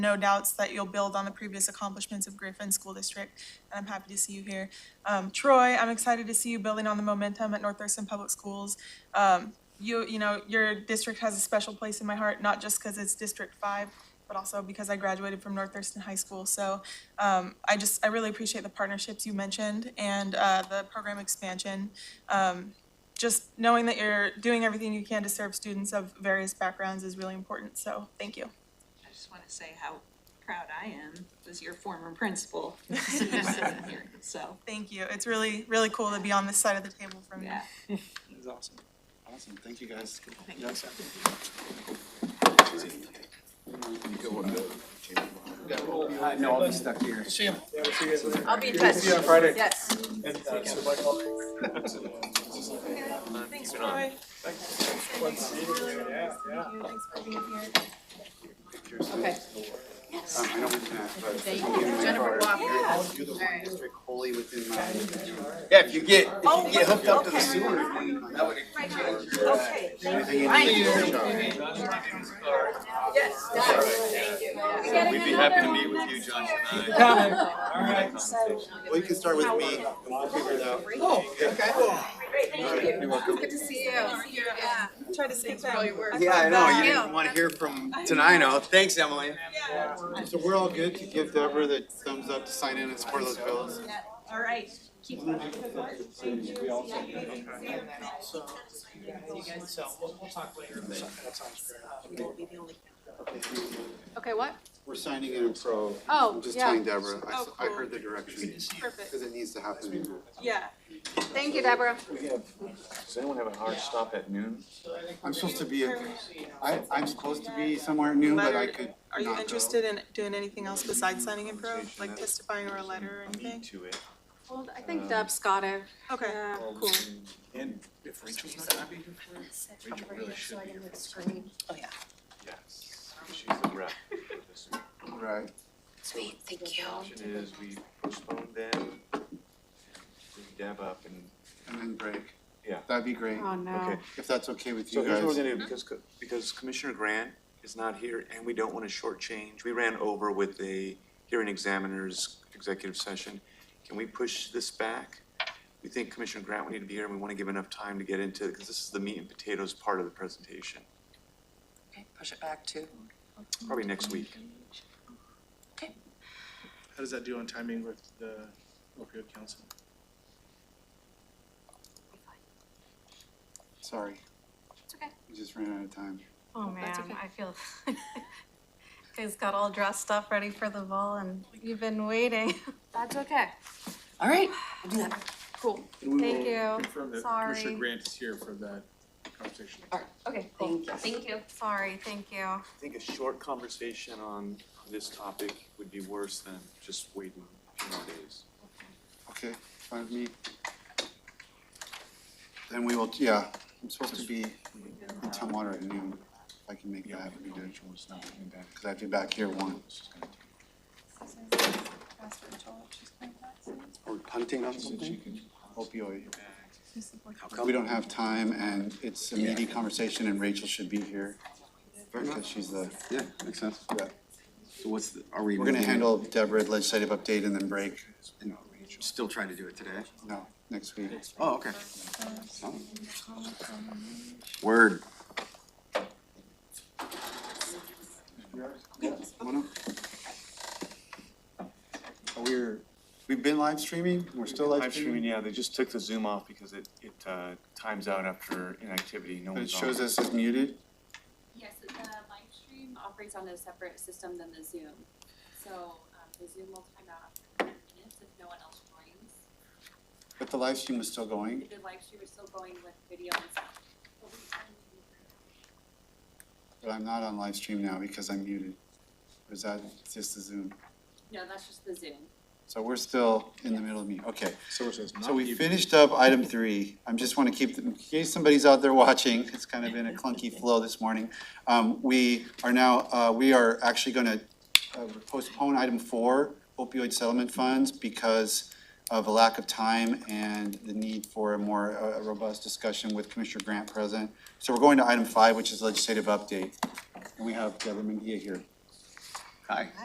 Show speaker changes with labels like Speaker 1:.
Speaker 1: no doubts that you'll build on the previous accomplishments of Griffin School District, and I'm happy to see you here. Um, Troy, I'm excited to see you building on the momentum at North Thurston Public Schools. Um, you, you know, your district has a special place in my heart, not just because it's District Five, but also because I graduated from North Thurston High School. So, um, I just, I really appreciate the partnerships you mentioned and, uh, the program expansion. Um, just knowing that you're doing everything you can to serve students of various backgrounds is really important, so thank you.
Speaker 2: I just want to say how proud I am as your former principal. sitting here. So,
Speaker 1: Thank you. It's really, really cool to be on this side of the table from you.
Speaker 2: yeah.
Speaker 3: That's awesome. Awesome, thank you guys.
Speaker 2: Thank
Speaker 3: Yeah. Uh, No, I'll be stuck here.
Speaker 4: See him.
Speaker 5: I'll be in touch.
Speaker 4: See you on Friday.
Speaker 5: Yes.
Speaker 4: And, uh, so Mike, I'll-
Speaker 1: Thanks, Troy. Thanks. Really,
Speaker 4: Yeah, yeah.
Speaker 1: thank you. Thanks for being here.
Speaker 5: Okay.
Speaker 3: Um, I know we can ask, but-
Speaker 5: Thank you. Jennifer Walker.
Speaker 3: You're the
Speaker 5: All
Speaker 3: one
Speaker 5: right.
Speaker 3: district wholly within my.
Speaker 6: Yeah, if you get, if
Speaker 1: Oh,
Speaker 6: you get hooked up to the
Speaker 1: okay.
Speaker 6: sewer, that would
Speaker 5: Okay.
Speaker 6: anything in
Speaker 5: Thank
Speaker 6: the
Speaker 5: you.
Speaker 6: future.
Speaker 5: Yes. Thank you. Yeah.
Speaker 6: We'd be happy to meet with you, John, Well, you can start with me and we'll figure it out.
Speaker 4: Oh, okay.
Speaker 6: You're welcome.
Speaker 5: Good to see you. See you again.
Speaker 1: Try to skip
Speaker 5: for all your work.
Speaker 1: that.
Speaker 6: Yeah, I know, you
Speaker 5: Yeah.
Speaker 6: didn't wanna hear from Tenino. Thanks, Emily.
Speaker 1: Yeah.
Speaker 3: So we're all good to give Deborah the thumbs up to sign in and support those bills?
Speaker 1: All right.
Speaker 4: So, so we'll, we'll talk later. That sounds fair.
Speaker 5: Okay, what?
Speaker 3: We're signing in pro.
Speaker 5: Oh,
Speaker 3: I'm just
Speaker 5: yeah.
Speaker 3: telling Deborah, I, s-
Speaker 1: Oh,
Speaker 3: I
Speaker 1: cool.
Speaker 3: heard the
Speaker 4: Good
Speaker 3: direction,
Speaker 4: to see you.
Speaker 1: Perfect.
Speaker 3: because it needs to happen.
Speaker 1: Yeah.
Speaker 5: Thank you, Deborah.
Speaker 7: We have, does anyone have a hard stop at noon?
Speaker 4: um,
Speaker 3: I'm supposed to be, I, I'm supposed to be somewhere new, but I could
Speaker 1: Are you
Speaker 3: not go.
Speaker 1: interested in doing anything else besides signing in pro, like testifying or a letter or anything?
Speaker 7: to it.
Speaker 5: Well, I think Deb's got it.
Speaker 1: Okay.
Speaker 5: Yeah.
Speaker 7: Well,
Speaker 1: Oh, Cool.
Speaker 7: and- And if Rachel's not gonna be here for it, Rachel really should be here.
Speaker 8: Oh, yeah.
Speaker 7: Yes, she's the rep for this.
Speaker 3: Right.
Speaker 8: Sweet, thank you.
Speaker 7: Option is we postpone them, bring Deb up and.
Speaker 3: And then break.
Speaker 7: Yeah.
Speaker 3: That'd be great,
Speaker 5: Oh, no.
Speaker 3: if that's okay with
Speaker 7: So
Speaker 3: you
Speaker 7: here's what we're
Speaker 3: guys.
Speaker 7: gonna do,
Speaker 8: Mm-hmm.
Speaker 7: because, co- because Commissioner Grant is not here, and we don't wanna shortchange, we ran over with the hearing examiner's executive session. Can we push this back? We think Commissioner Grant would need to be here, and we wanna give enough time to get into, because this is the meat and potatoes part of the presentation,
Speaker 8: Okay, Push it back to,
Speaker 7: probably next week.
Speaker 4: How does that do on timing with the opioid council?
Speaker 3: Sorry,
Speaker 9: It's okay.
Speaker 3: we just ran out of time.
Speaker 9: Oh,
Speaker 5: that's
Speaker 9: man,
Speaker 5: okay.
Speaker 9: I feel, guys got all dressed up, ready for the ball, and you've been waiting.
Speaker 5: That's okay.
Speaker 8: all right, we'll do that.
Speaker 9: Cool.
Speaker 4: And we
Speaker 9: Thank
Speaker 4: will
Speaker 9: you.
Speaker 4: Confirm that
Speaker 9: Sorry.
Speaker 4: Commissioner Grant is here for that conversation.
Speaker 8: All right,
Speaker 9: Okay,
Speaker 8: thank you.
Speaker 9: Thank you. Sorry, thank you.
Speaker 7: I think a short conversation on this topic would be worse than just waiting a few more days.
Speaker 3: Okay, fine with me. Then we will, yeah, I'm supposed to be in Tumwater at noon, if I can make that happen, we do it.
Speaker 4: Rachel is not coming back.
Speaker 3: cause I'd be back here one.
Speaker 4: She's gonna take-
Speaker 3: Or punting on
Speaker 4: She said she can.
Speaker 3: Opioid. We don't have time and it's a meaty conversation and Rachel should be here. Because she's the,
Speaker 6: Yeah, makes sense.
Speaker 3: yeah.
Speaker 6: So what's, the- are we?
Speaker 3: We're gonna
Speaker 6: moving it?
Speaker 3: handle Deborah legislative update and then break,
Speaker 6: And Still trying to do it today?
Speaker 3: no, next week.
Speaker 6: Oh, okay. Oh. Word.
Speaker 3: Wanna- Oh, We're, we've been live streaming, we're still live
Speaker 10: Live streaming,
Speaker 3: streaming,
Speaker 10: yeah, they just took the Zoom off because it, it, uh, times out after inactivity, no
Speaker 3: but it
Speaker 10: one's on.
Speaker 3: shows us as muted.
Speaker 11: Yes, the live stream operates on a separate system than the Zoom. So um, the Zoom will time out after five minutes if no one else joins.
Speaker 3: But the live stream was still going.
Speaker 11: The live stream is still going with video and sound.
Speaker 3: But I'm not on live stream now because I'm muted. Or is that just the Zoom?
Speaker 11: No, that's just the Zoom.
Speaker 3: So we're still in the middle of me. Okay.
Speaker 4: So it says
Speaker 3: So
Speaker 4: not
Speaker 3: we
Speaker 4: even-
Speaker 3: finished up item three. I'm just want to keep, in case somebody's out there watching, it's kind of been a clunky flow this morning. Um, we are now, uh, we are actually going to postpone item four, opioid settlement funds, because of a lack of time and the need for a more uh, robust discussion with Commissioner Grant present. So we're going to item five, which is legislative update. And we have Deborah Mendia here. Hi.